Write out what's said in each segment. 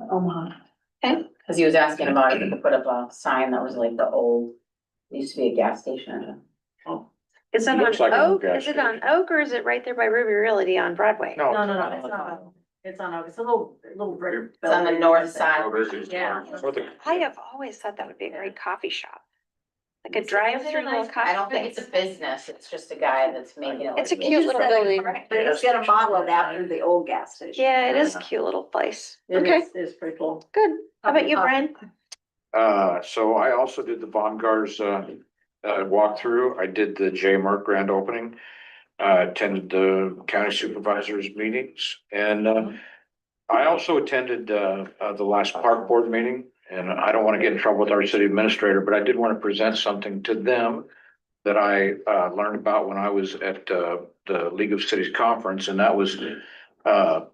Omaha. Cause he was asking about if you could put up a sign that was like the old, used to be a gas station. Is that Looks on like an old Oak? gas Is it on station. Oak or is it right there by Ruby Realty on Broadway? No. No, no, no, it's not, on- it's on, a- it's a little, little brick. It's on the building. north side. Yeah. I have always thought that would be a great coffee shop. Like a drive-through little coffee. I don't think it's a business, it's just a guy that's making it. It's a look cute little building. But it's got a model of after the old gas station. Uh-huh. Yeah, it is a cute little place. It Okay, is- It's pretty cool. good. How about you, Brian? Uh, so I also did the Bongar's uh, uh, walkthrough. I did the J Mark grand opening. Uh, attended the county supervisors meetings and, uh, I also attended, uh, uh, the last park board meeting. And I don't want to get in trouble with our city administrator, but I did want to present something to them that I, uh, learned about when I was at, uh, the League of Cities Conference and that was, uh,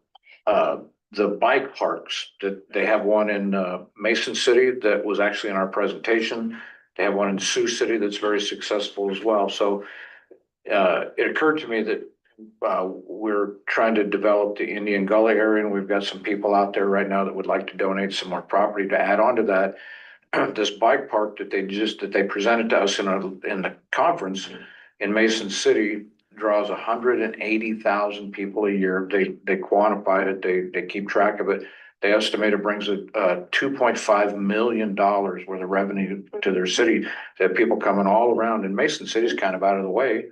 uh, the bike parks that they have one in uh, Mason City that was actually in our presentation. They have one in Sioux City that's very successful as well. So uh, it occurred to me that uh, we're trying to develop the Indian Gully area and we've got some people out there right now that would like to donate some more property to add on to that. This bike park that they just, that they presented to us in a, in the conference in Mason City draws hundred and eighty thousand people a year. They, they quantify it, they, they keep track of it. They estimate it brings a, uh, two point five million dollars worth of revenue to their city. They have people coming all around and Mason City's kind of out of the way.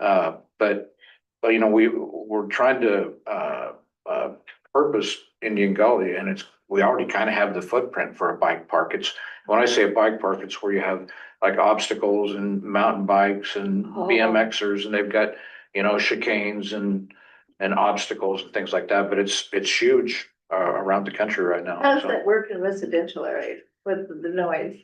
Uh, but, but you know, we, we're trying to, uh, uh, purpose Indian Gully and it's, we already kind of have the footprint for a bike park. It's, when I say a bike park, it's where you have like obstacles and mountain bikes and Oh. BMXers and they've got, you know, chicanes and, and obstacles and things like that, but it's, it's huge uh, around the country right now. How does so. that work in residential area with the noise?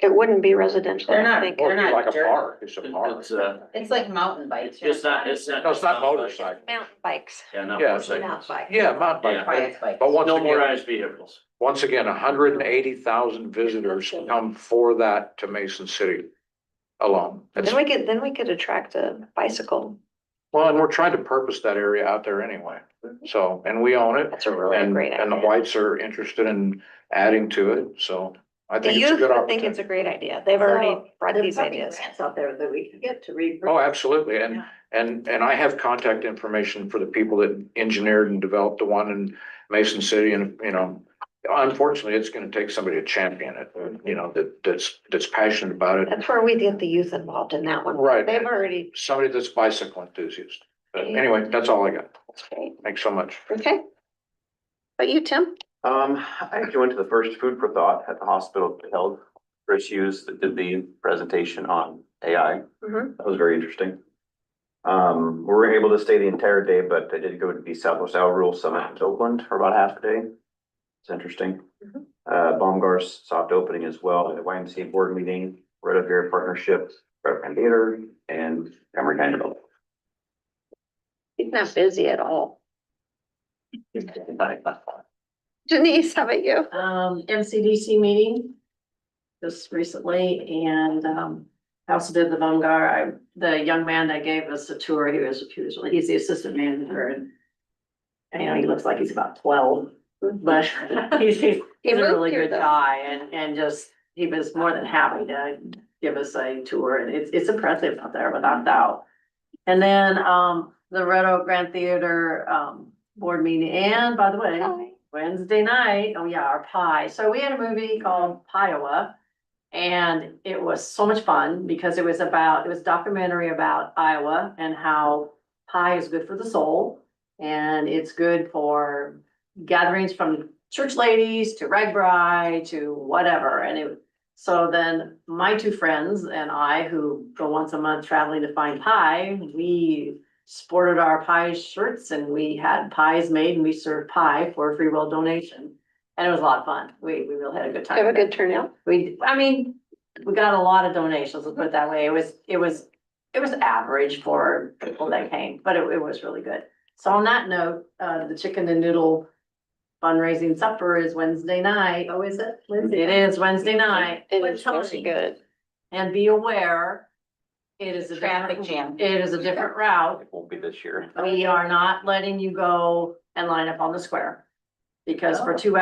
It wouldn't be residential, They're I not- think. Well, They're it's like a dirt. park, it's a park. It's uh, It's like mountain bikes. it's not, it's not. No, it's not motorcycle. Mountain bikes. Yeah, not Yeah. motorcycles. Yeah, mountain bike. Quiet bike. But once No again, motorized vehicles. once again, hundred and eighty thousand visitors come for that to Mason City alone. It's- Then we could, then we could attract a bicycle. Well, and we're trying to purpose that area out there anyway. So, and we own it. That's a really And, great and the idea. whites are interested in adding to it, so I The think it's a youth good would think it's opportunity. a great idea. They've already So, brought There's these probably ideas. Grants out there that we can get to read. Oh, absolutely, and, Yeah. and, and I have contact information for the people that engineered and developed the one in Mason City and, you know. Unfortunately, it's gonna take somebody to champion it, you know, that, that's, that's passionate about it, That's where we get the youth involved in that one. Right. They've already, somebody that's bicycle enthusiast. But anyway, that's all I got, that's great. thanks so much. Okay. But you, Tim? Um, I actually went to the first Food for Thought at the hospital held. Chris Hughes that did the presentation on AI. Mhm. That was very interesting. Um, we were able to stay the entire day, but I did go to the Southwest Iowa Rural Summit in Oakland for about half a day. It's interesting. Mhm. Uh, Baumgart's soft opening as well, the YMCA board meeting, Red Oak Area Partnership, Brett Van Theater and Emory County Development. He's not busy at all. Denise, how about you? um, MCDC meeting just recently and, um, I also did the Bungar. I, the young man that gave us the tour, he was, he was, he's the assistant manager and and, you know, he looks like he's about twelve, but he's, he's, He he's a moved really here, good though. guy and, and just, he was more than happy to give us a tour and it's, it's impressive out there without doubt. And then, um, the Red Oak Grand Theater, um, board meeting and by the way, Hi. Wednesday night, oh yeah, our pie. So we had a movie called Piowa. And it was so much fun because it was about, it was a documentary about Iowa and how pie is good for the soul. And it's good for gatherings from church ladies to rag bri to whatever. And it, so then my two friends and I, who go once a month traveling to find pie, we sported our pie shirts and we had pies made and we served pie for a free will donation. And it was a lot of fun. We, we really had a good time. Have a good turnout. We, I mean, we got a lot of donations, let's put it that way. It was, it was, it was average for people that came, but it, it was really good. So on that note, uh, the chicken and noodle fundraising supper is Wednesday night. Oh, is it? It is Wednesday night. It is very good. And be aware, it is a Traffic jam. different, it is a different route. It won't be this year. Oh. We are not letting you go and line up on the square. Because for two